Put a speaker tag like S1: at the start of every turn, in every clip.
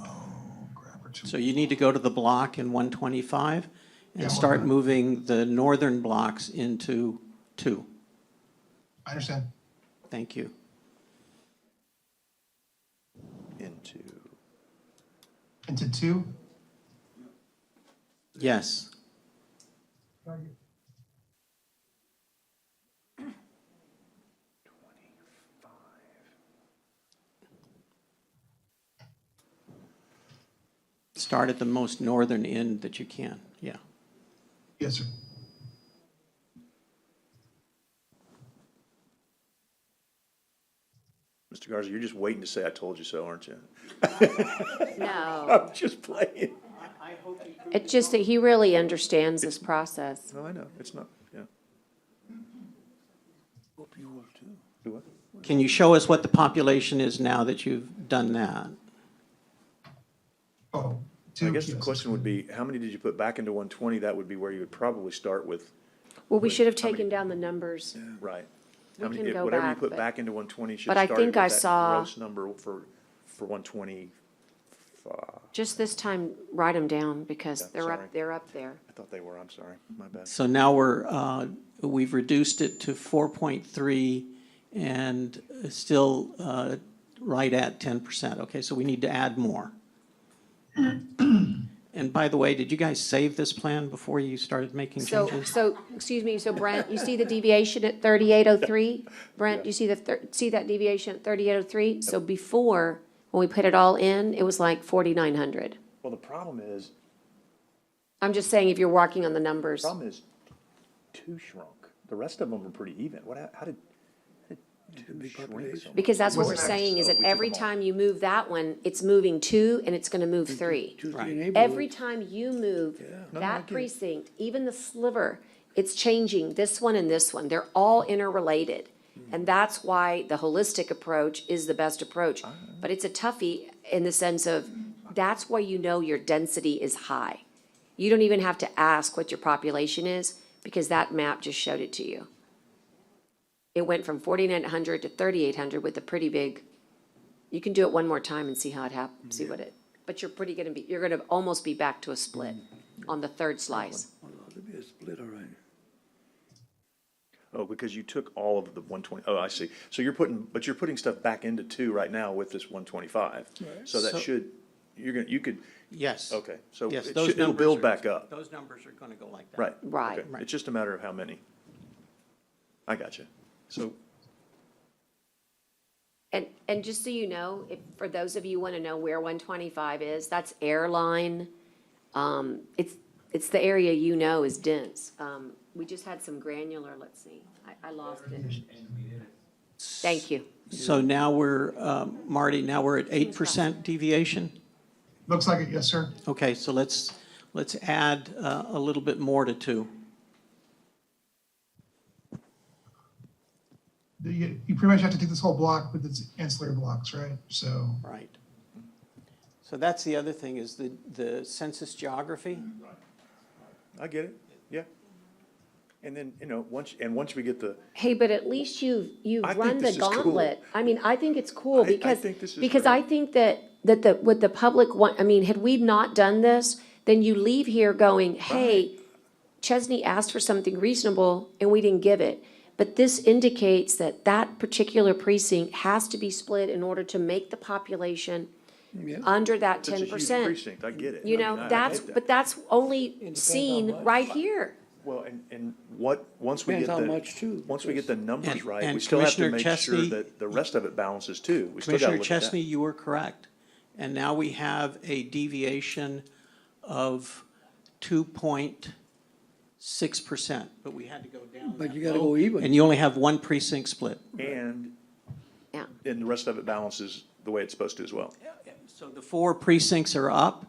S1: Oh, or two.
S2: So you need to go to the block in one twenty-five
S1: Yeah.
S2: and start moving the northern blocks into two.
S1: I understand.
S2: Thank you.
S3: into,
S1: Into two?
S2: Yes. Start at the most northern end that you can, yeah.
S1: Yes, sir.
S3: Mr. Garza, you're just waiting to say I told you so, aren't you?
S4: No,
S3: I'm just playing.
S4: it's just that he really understands this process.
S3: No, I know, it's not, yeah. Hope you will too. Do what?
S2: Can you show us what the population is now that you've done that?
S1: Oh,
S3: I
S1: two,
S3: guess the
S1: yes.
S3: question would be, how many did you put back into one twenty? That would be where you would probably start with,
S4: Well, we should have
S3: How many-
S4: taken down the numbers.
S3: right?
S4: We
S3: How many-
S4: can
S3: if-
S4: go
S3: Whatever you
S4: back,
S3: put
S4: but-
S3: back into one twenty should
S4: but I
S3: have started
S4: think
S3: with
S4: I
S3: that
S4: saw-
S3: gross number for, for one twenty.
S4: Just this time, write them down because
S3: Yeah,
S4: they're
S3: sorry.
S4: up, they're up there.
S3: I thought they were, I'm sorry, my bad.
S2: So now we're, uh, we've reduced it to four point three and still, uh, right at ten percent. Okay, so we need to add more. And by the way, did you guys save this plan before you started making
S4: So,
S2: changes?
S4: so, excuse me, so Brent, you see the deviation at thirty-eight oh three? Brent, you see the, thir- see that deviation at thirty-eight oh three? So before, when we put it all in, it was like forty-nine hundred.
S3: Well, the problem is,
S4: I'm just saying if you're working on the numbers,
S3: problem is two shrunk. The rest of them are pretty even. What, hap- how did, how did two shrink so much?
S4: because that's what we're
S1: Wasn't that-
S4: saying is that
S3: we took
S4: every
S3: them all.
S4: time you move that one, it's moving two and it's gonna move three.
S2: Right,
S4: Every time you move
S3: No, I
S4: that
S3: get it.
S4: precinct, even the sliver, it's changing this one and this one. They're all interrelated.
S3: Mm.
S4: And that's why the holistic approach is the best approach. But it's a toughie in the sense of, that's why you know your density is high. You don't even have to ask what your population is, because that map just showed it to you. It went from forty-nine hundred to thirty-eight hundred with a pretty big, you can do it one more time and see how it hap, see what it, but you're pretty gonna be, you're gonna almost be back to a split on the third slice.
S5: There'll be a split, all right.
S3: Oh, because you took all of the one twenty, oh, I see. So you're putting, but you're putting stuff back into two right now with this one twenty-five. So
S2: So-
S3: that should, you're gonna, you could,
S2: yes.
S3: okay, so it
S2: Yes,
S3: should,
S2: those
S3: it'll
S2: numbers
S3: build
S2: are-
S3: back up,
S2: Those numbers are gonna go like that.
S3: right?
S4: Right.
S3: okay. It's just a matter of how many. I got you. So
S4: And, and just so you know, if, for those of you who wanna know where one twenty-five is, that's airline. Um, it's, it's the area you know is dense. Um, we just had some granular, let's see, I, I lost it. Thank you.
S2: So now we're, um, Marty, now we're at eight percent deviation?
S1: Looks like it, yes, sir.
S2: Okay, so let's, let's add, uh, a little bit more to two.
S1: The- You, you pretty much have to take this whole block with its ancillary blocks, right? So,
S2: Right. So that's the other thing, is the, the census geography.
S3: I get it, yeah. And then, you know, once, and once we get the,
S4: Hey, but at least you've, you've
S3: I think
S4: run the
S3: this is cool.
S4: gauntlet. I mean, I think it's
S3: I-
S4: cool
S3: I
S4: because,
S3: think this is
S4: because
S3: great.
S4: I think that, that the, what the public want, I mean, had we not done this, then you leave here going, hey, Chesney asked for something reasonable and we didn't give it. But this indicates that that particular precinct has to be split in order to make the population under that
S3: it's a
S4: ten
S3: huge
S4: percent.
S3: precinct, I get it.
S4: You
S3: I mean, I- I
S4: know,
S3: get
S4: that's,
S3: that.
S4: but that's only
S5: depends how
S4: seen
S5: much.
S4: right here.
S3: Well, and, and what, once we get
S5: Depends
S3: the.
S5: how much, too,
S3: Once we get the numbers
S2: And-
S3: right, we
S2: and
S3: still have to
S2: Commissioner
S3: make sure
S2: Chesney-
S3: that the rest of it balances too. We still gotta
S2: Commissioner
S3: look at that.
S2: Chesney, you were correct. And now we have a deviation of two point six percent, but we had to go down.
S5: But
S2: that
S5: you gotta
S2: low,
S5: go even.
S2: And you only have one precinct split.
S3: And,
S4: Yeah.
S3: and the rest of it balances the way it's supposed to as well.
S2: So the four precincts are up,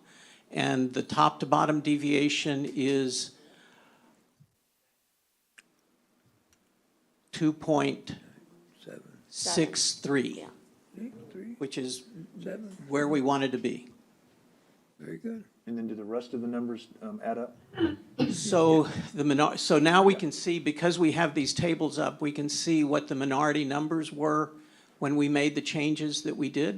S2: and the top to bottom deviation is two point
S5: Seven,
S2: six three,
S4: Yeah.
S5: eight, three,
S2: which is
S5: seven,
S2: where we wanted to be.
S5: very good.
S3: And then do the rest of the numbers, um, add up?
S2: So the minor, so now we can see, because we have these tables up, we can see what the minority numbers were when we made the changes that we did.